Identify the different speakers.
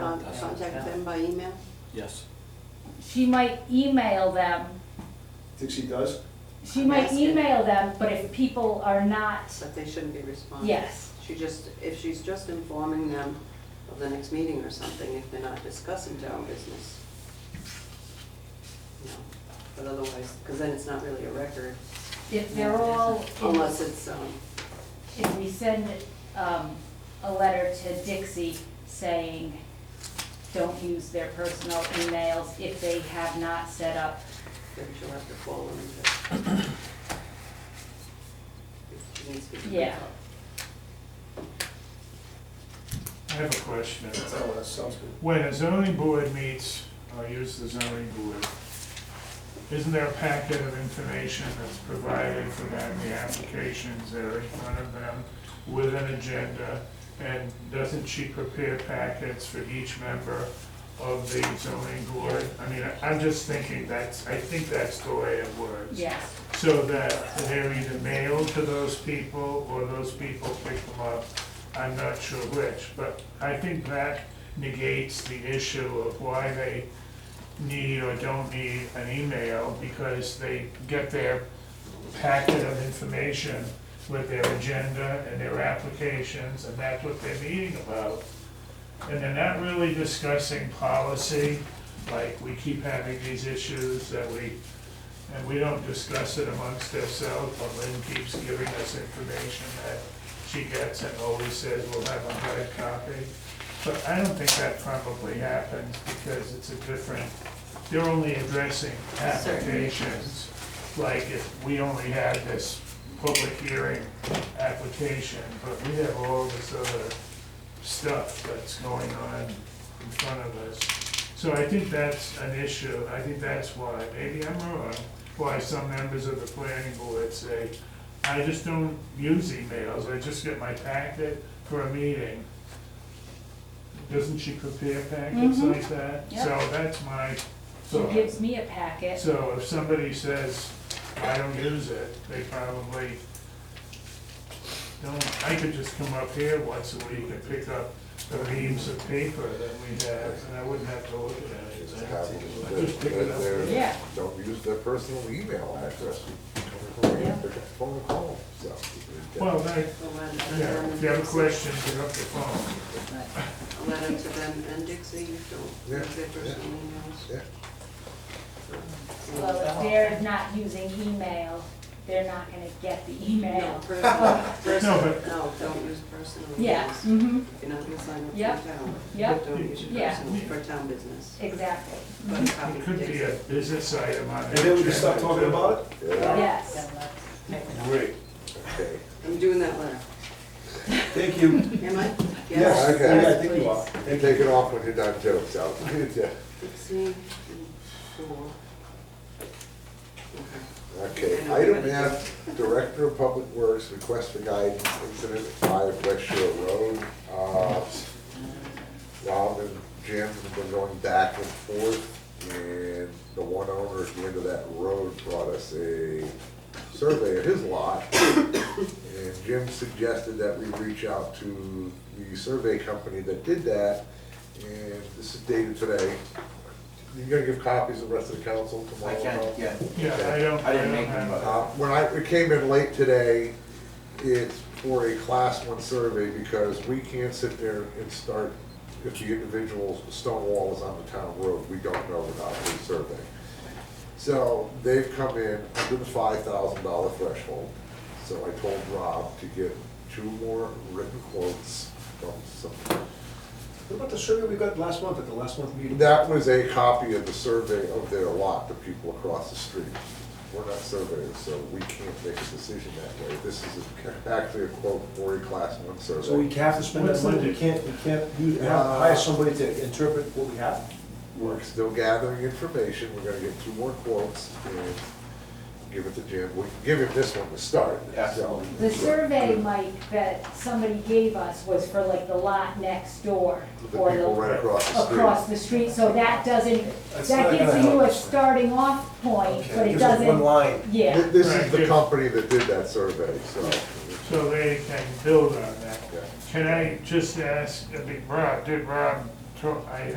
Speaker 1: Con- Um, Contact them by email?
Speaker 2: Yes.
Speaker 3: She might email them,
Speaker 4: Think she does?
Speaker 3: she
Speaker 1: Yes.
Speaker 3: might email them, but if people are not,
Speaker 1: But they shouldn't be responding?
Speaker 3: yes.
Speaker 1: She just, if she's just informing them of the next meeting or something, if they're not discussing town business. No, But otherwise, because then it's not really a record,
Speaker 3: If they're all,
Speaker 1: unless it's, um,
Speaker 3: if we send, um, a letter to Dixie saying, don't use their personal emails if they have not set up,
Speaker 1: then she'll have to follow them. but- It needs to be-
Speaker 3: Yeah.
Speaker 5: I have a question.
Speaker 4: Oh, that sounds good.
Speaker 5: When a zoning board meets, I'll use the zoning board, isn't there a packet of information that's provided for them, the applications that are in front of them with an agenda? And doesn't she prepare packets for each member of the zoning board? I mean, I- I'm just thinking that's, I think that's the way it works.
Speaker 3: yes.
Speaker 5: So that they're either mailed to those people or those people pick them up. I'm not sure which, but I think that negates the issue of why they need or don't need an email because they get their packet of information with their agenda and their applications and that's what they're meeting about. And they're not really discussing policy, like we keep having these issues that we and we don't discuss it amongst ourselves, but Lynn keeps giving us information that she gets and always says we'll have a hard copy. But I don't think that probably happens because it's a different, they're only addressing applications. Like if we only had this public hearing application, but we have all this other stuff that's going on in front of us. So I think that's an issue, I think that's why, maybe I'm wrong, why some members of the planning board say, I just don't use emails, I just get my packet for a meeting. Doesn't she prepare packets
Speaker 3: Mhm.
Speaker 5: like that?
Speaker 3: Yep.
Speaker 5: So that's my
Speaker 3: She
Speaker 5: thought.
Speaker 3: gives me a packet,
Speaker 5: So if somebody says, I don't use it, they probably don't, I could just come up here once a week and pick up the reams of paper that we have, and I wouldn't have to look at it.
Speaker 6: It's
Speaker 5: I
Speaker 6: happened
Speaker 5: just
Speaker 6: that
Speaker 5: pick it up.
Speaker 6: they're-
Speaker 3: Yeah.
Speaker 6: Don't use their personal email address. Pick up phone call, so.
Speaker 5: Well, that,
Speaker 1: So when-
Speaker 5: yeah, if you have a question, pick up the phone.
Speaker 1: A letter to them and Dixie, you don't,
Speaker 6: Yeah,
Speaker 1: use their
Speaker 6: yeah.
Speaker 1: personal emails.
Speaker 6: Yeah.
Speaker 3: well, if they're not using email, they're not gonna get the email.
Speaker 1: No, personal-
Speaker 5: No, but-
Speaker 1: No, don't use personal emails.
Speaker 3: Yeah, mm-hmm,
Speaker 1: If you're not gonna sign up for
Speaker 3: Yep.
Speaker 1: town.
Speaker 3: Yep.
Speaker 1: Don't use your
Speaker 3: Yeah. Mm-hmm.
Speaker 1: personal for town business.
Speaker 3: exactly,
Speaker 1: But copy
Speaker 5: It could be a
Speaker 1: Dixie.
Speaker 5: business item on.
Speaker 4: And then we just stop talking about it?
Speaker 6: Yeah,
Speaker 3: yes.
Speaker 5: Great.
Speaker 6: okay.
Speaker 1: I'm doing that letter.
Speaker 4: Thank you.
Speaker 1: Am I?
Speaker 4: Yes,
Speaker 6: Okay.
Speaker 4: yeah, I think you are.
Speaker 6: And take it off when you're done too, so. yeah.
Speaker 1: Dixie and four. Okay.
Speaker 6: Okay, item F, Director of Public Works, request for guidance, incident at five West Shore Road. Uh, Rob and Jim have been going back and forth, and the one owner at the end of that road brought us a survey of his lot. And Jim suggested that we reach out to the survey company that did that, and this is dated today. You gonna give copies to the rest of the council
Speaker 7: I
Speaker 6: tomorrow?
Speaker 7: can,
Speaker 6: Rob?
Speaker 7: yeah.
Speaker 5: Yeah, I don't, I
Speaker 7: I didn't
Speaker 5: don't
Speaker 7: make them,
Speaker 5: have.
Speaker 7: but-
Speaker 6: Uh, When I, it came in late today, it's for a class one survey because we can't sit there and start, if the individual stone wall is on the town road, we don't know without the survey. So they've come in under the five thousand dollar threshold. So I told Rob to get two more written quotes from some
Speaker 4: What about the survey we got last month at the last month meeting?
Speaker 6: that was a copy of the survey of their lot, the people across the street. We're not surveyors, so we can't make a decision that way. This is a- actually a quote for a class one
Speaker 4: So we
Speaker 6: survey.
Speaker 4: have to spend that money, we can't, we can't use, have to hire somebody to interpret what we have?
Speaker 6: We're still gathering information, we're gonna get two more quotes and give it to Jim. We can give him this one to start, so.
Speaker 7: Absolutely.
Speaker 3: The survey, Mike, that somebody gave us was for like the lot next door.
Speaker 6: The
Speaker 3: or
Speaker 6: people right across the street.
Speaker 3: Across the street, so that doesn't,
Speaker 4: That's not
Speaker 3: that
Speaker 4: gonna
Speaker 3: gives you
Speaker 4: help
Speaker 3: a
Speaker 4: us.
Speaker 3: starting off point,
Speaker 4: Okay,
Speaker 3: but it
Speaker 4: gives us One
Speaker 3: doesn't,
Speaker 4: line.
Speaker 3: yeah.
Speaker 6: Th- This is the company that did that survey, so.
Speaker 5: So they can build on that.
Speaker 6: yeah.
Speaker 5: Can I just ask, I mean, Rob, did Rob tro- I